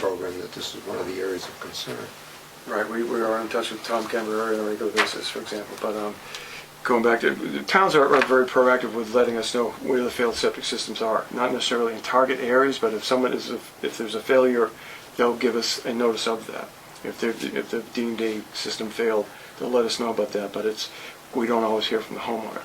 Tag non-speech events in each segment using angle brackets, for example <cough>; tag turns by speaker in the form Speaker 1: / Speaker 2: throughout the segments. Speaker 1: Cameron that this is one of the areas of concern.
Speaker 2: Right, we, we are in touch with Tom Camberry on a regular basis, for example, but, um, going back to, the towns are, are very proactive with letting us know where the failed septic systems are, not necessarily in target areas, but if someone is, if, if there's a failure, they'll give us a notice of that. If they're, if the deemed a system failed, they'll let us know about that, but it's, we don't always hear from the homeowner.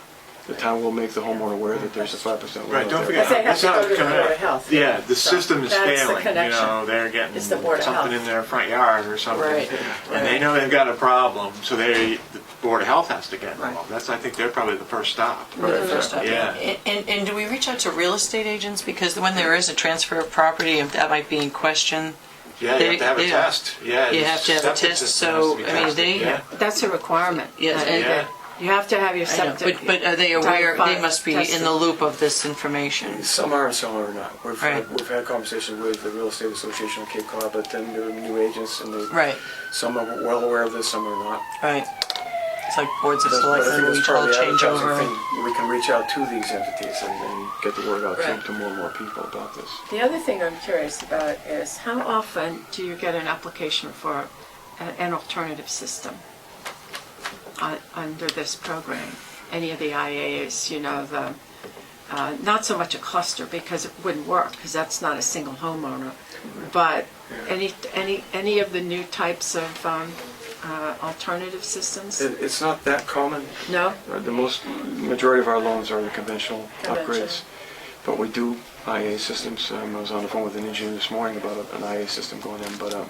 Speaker 2: The town will make the homeowner aware that there's a five percent
Speaker 3: Right, don't forget,
Speaker 4: Because they
Speaker 3: that's
Speaker 4: have to
Speaker 3: how
Speaker 4: go to
Speaker 3: it's
Speaker 4: the
Speaker 3: coming
Speaker 4: Board
Speaker 3: out.
Speaker 4: of Health.
Speaker 3: Yeah, the
Speaker 4: So
Speaker 3: system is
Speaker 4: that's the
Speaker 3: failing, you
Speaker 4: connection.
Speaker 3: know, they're getting
Speaker 4: It's the Board of
Speaker 3: something
Speaker 4: Health.
Speaker 3: in their front yard or something.
Speaker 4: Right,
Speaker 3: And they
Speaker 4: right.
Speaker 3: know they've got a problem, so they, the Board of Health has to get
Speaker 5: Right.
Speaker 3: involved. That's, I think, they're probably the first stop.
Speaker 5: the first time.
Speaker 3: Yeah.
Speaker 5: And, and- and do we reach out to real estate agents? Because when there is a transfer of property, if that might be in question,
Speaker 3: Yeah, you have to have a
Speaker 5: They- yeah.
Speaker 3: test, yeah.
Speaker 5: You
Speaker 3: the
Speaker 5: have to have a
Speaker 3: septic
Speaker 5: test,
Speaker 3: system
Speaker 5: so,
Speaker 3: has to be
Speaker 5: I mean,
Speaker 3: tested,
Speaker 5: they-
Speaker 3: yeah.
Speaker 4: That's a requirement.
Speaker 5: Yes,
Speaker 4: I
Speaker 5: and-
Speaker 4: think. You have to have your
Speaker 5: I know,
Speaker 4: septic.
Speaker 5: but, but uh, are they
Speaker 4: Type
Speaker 5: aware, they
Speaker 4: five
Speaker 5: must be in
Speaker 4: tested.
Speaker 5: the loop of this information?
Speaker 2: Some are and some are not. We've,
Speaker 5: Right.
Speaker 2: we've had conversations with the Real Estate Association of Cape Cod, but then there are new agents and they,
Speaker 5: Right,
Speaker 2: some are well aware of this, some are not.
Speaker 5: right. It's like boards of
Speaker 2: But I think
Speaker 5: selectmen,
Speaker 2: that's
Speaker 5: we
Speaker 2: part
Speaker 5: all
Speaker 2: of the
Speaker 5: change
Speaker 2: advertising
Speaker 5: over.
Speaker 2: thing. We can reach out to these entities and, and get the word out to, to more and more people about this.
Speaker 4: The other thing I'm curious about is how often do you get an application for a- an alternative system uh, under this program? Any of the IAs, you know, the, uh, not so much a cluster because it wouldn't work because that's not a single homeowner, but any, any, any of the new types of um, uh, alternative systems?
Speaker 2: It, it's not that common.
Speaker 4: No?
Speaker 2: Uh, The most, majority of our loans are the conventional
Speaker 4: Conventional.
Speaker 2: upgrades. But we do IA systems. Um, I was on the phone with an engineer this morning about a- an IA system going in, but um,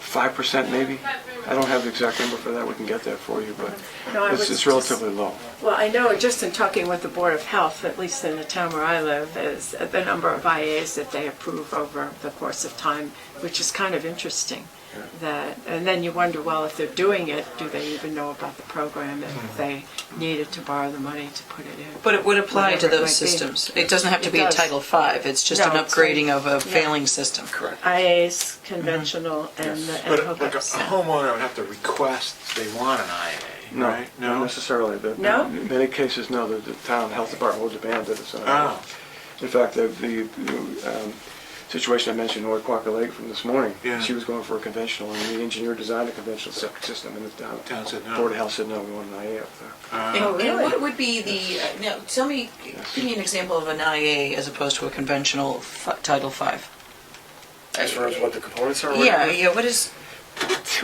Speaker 2: 5% maybe? I don't have the exact number for that. We can get that for you, but
Speaker 4: No, I
Speaker 2: it's
Speaker 4: was
Speaker 2: it's
Speaker 4: just-
Speaker 2: relatively low.
Speaker 4: Well, I know just in talking with the Board of Health, at least in the town where I live, is the number of IAs that they approve over the course of time, which is kind of interesting. That, and then you wonder, well, if they're doing it, do they even know about the program and
Speaker 3: Hmm.
Speaker 4: if they needed to borrow the money to put it in?
Speaker 5: But it would apply to
Speaker 4: Whatever it
Speaker 5: those
Speaker 4: might be.
Speaker 5: systems. It doesn't have to
Speaker 4: It
Speaker 5: be a
Speaker 4: does.
Speaker 5: Title V, it's just an
Speaker 4: No, it's like-
Speaker 5: upgrading of a
Speaker 4: yeah.
Speaker 5: failing system. Correct.
Speaker 4: IAs, conventional, and the and
Speaker 3: Mm-hmm. But like a a
Speaker 4: hookups.
Speaker 3: homeowner would have to request they want an IA,
Speaker 2: No,
Speaker 3: right?
Speaker 2: not necessarily. The-
Speaker 4: No?
Speaker 2: In many cases, no, the the town health department will demand that it's an IA.
Speaker 3: Oh,
Speaker 2: In fact, the, the um, situation I mentioned in North Quaker Lake from this morning,
Speaker 3: Yeah.
Speaker 2: she was going for a conventional, and the engineer designed a conventional septic system, and the town,
Speaker 3: Town said no.
Speaker 2: Board of Health said no, we want an IA up there.
Speaker 4: Oh,
Speaker 5: And and
Speaker 4: really?
Speaker 5: what would be the, uh, now, tell me, give me an example of an IA as opposed to a conventional fi- Title V.
Speaker 2: As far as what the components are?
Speaker 5: Yeah, yeah, what is,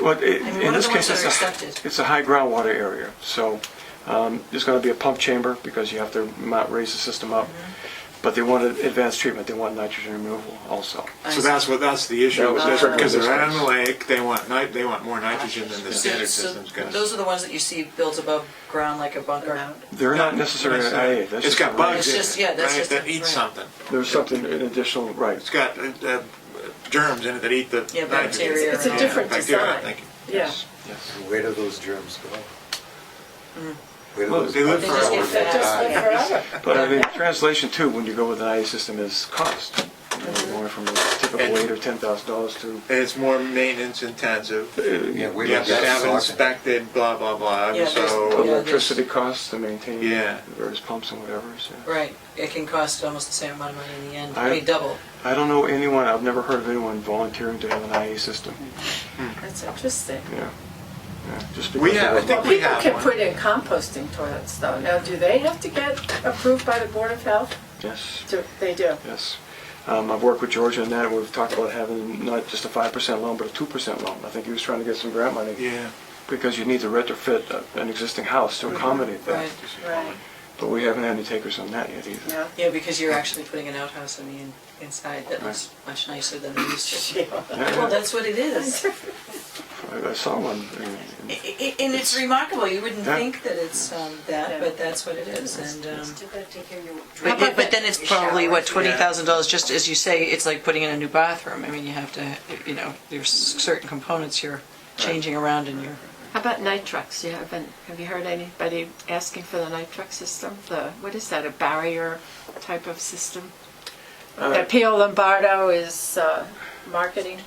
Speaker 2: Well, it-
Speaker 5: I mean, what
Speaker 2: in
Speaker 5: are
Speaker 2: this
Speaker 5: the
Speaker 2: case,
Speaker 5: ones
Speaker 2: it's
Speaker 5: that are
Speaker 2: a,
Speaker 5: accepted?
Speaker 2: it's a high groundwater area, so um, there's going to be a pump chamber because you have to mount- raise the system up,
Speaker 5: Mm-hmm.
Speaker 2: but they want advanced treatment, they want nitrogen removal also.
Speaker 3: so that's what, that's the issue,
Speaker 2: That was different
Speaker 3: because they're
Speaker 2: business.
Speaker 3: out on the lake, they want nit, they want more nitrogen than the
Speaker 5: So-
Speaker 3: standard
Speaker 5: uh, so
Speaker 3: system's gonna.
Speaker 5: Those are the ones that you see built above ground like a bunker.
Speaker 2: They're not necessarily an IA. that's
Speaker 3: It's
Speaker 2: just a
Speaker 3: got
Speaker 2: rate.
Speaker 3: bugs
Speaker 5: It's
Speaker 3: in
Speaker 5: just-
Speaker 3: it,
Speaker 5: yeah, that's
Speaker 3: right,
Speaker 5: just-
Speaker 3: that eat
Speaker 5: right.
Speaker 3: something.
Speaker 2: There's something in additional, right.
Speaker 3: It's got uh, uh, germs in it that eat the
Speaker 5: Yeah,
Speaker 3: nitrogen.
Speaker 5: bacteria. It's a
Speaker 3: Yeah,
Speaker 4: different
Speaker 3: bacteria,
Speaker 4: design.
Speaker 3: thank you.
Speaker 4: Yeah.
Speaker 2: Yes.
Speaker 1: And Where do those germs go? Where do
Speaker 3: Well,
Speaker 1: those
Speaker 3: they live
Speaker 1: bugs
Speaker 3: for
Speaker 1: go?
Speaker 3: hours.
Speaker 4: That just went forever.
Speaker 2: But I mean, translation too, when you go with an IA system, is cost. You know, Going from a typical
Speaker 3: And-
Speaker 2: eight or ten thousand dollars to,
Speaker 3: And it's more maintenance intensive.
Speaker 1: Yeah, where
Speaker 3: You
Speaker 1: do
Speaker 3: have to
Speaker 1: those
Speaker 3: have it
Speaker 1: go?
Speaker 3: inspected, blah, blah, blah,
Speaker 5: Yeah,
Speaker 3: so.
Speaker 5: there's- yeah.
Speaker 2: electricity costs to maintain
Speaker 3: Yeah.
Speaker 2: the various pumps and whatever. so.
Speaker 5: Right, it can cost almost the same amount of money in the end,
Speaker 2: I-
Speaker 5: maybe double.
Speaker 2: I don't know anyone, I've never heard of anyone volunteering to have an IA system,
Speaker 4: That's interesting.
Speaker 2: yeah. Yeah, Just
Speaker 3: We
Speaker 2: because
Speaker 3: have- I
Speaker 2: of
Speaker 3: think
Speaker 4: Well,
Speaker 3: we
Speaker 4: people
Speaker 3: have
Speaker 4: can
Speaker 3: one.
Speaker 4: put in composting toilets though. Now, do they have to get approved by the Board of Health?
Speaker 2: Yes.
Speaker 4: Do- They do.
Speaker 2: Yes. Um, I've worked with George on that, we've talked about having not just a five percent loan, but a two percent loan. I think he was trying to get some grant money.
Speaker 3: Yeah.
Speaker 2: Because you need to retrofit a- an existing house to accommodate that.
Speaker 5: Right,
Speaker 4: Right,
Speaker 2: But we haven't had any takers on that yet either. <laughs>
Speaker 4: yeah.
Speaker 5: yeah, because you're actually putting an outhouse on the in- inside that looks much nicer than it used
Speaker 3: <laughs>
Speaker 5: to. Well, that's what it is.
Speaker 2: I- I saw one. in-
Speaker 5: I-
Speaker 2: in-
Speaker 5: I- And it's remarkable, you wouldn't
Speaker 2: Yeah.
Speaker 5: think that it's um,
Speaker 4: Yeah.
Speaker 5: that, but that's what it is, and. um,
Speaker 6: Too bad to hear you-
Speaker 5: But,
Speaker 6: How
Speaker 5: it,
Speaker 6: about
Speaker 5: but
Speaker 6: that?
Speaker 5: then it's
Speaker 6: Your
Speaker 5: probably what
Speaker 6: showers.
Speaker 5: twenty thousand dollars, just as you say, it's like putting in a new bathroom. I mean, you have to, you know, there's certain components you're changing around in your.
Speaker 4: How about nitrux? You haven't, have you heard anybody asking for the nitrux system? The, what is that, a barrier type of system?
Speaker 2: Uh,
Speaker 4: That Pio Lombardo is uh, marketing?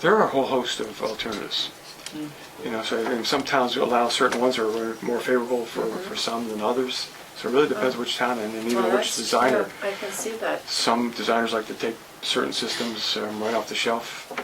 Speaker 2: There are a whole host of alternatives.
Speaker 4: Mm.
Speaker 2: You know, so and some towns allow certain ones are more favorable for, for some than others. So it really depends which town and then
Speaker 4: Mm-hmm. Mm. Well,
Speaker 2: even which
Speaker 4: that's
Speaker 2: designer.
Speaker 4: true. I can see that.
Speaker 2: Some designers like to take certain systems um, right off the shelf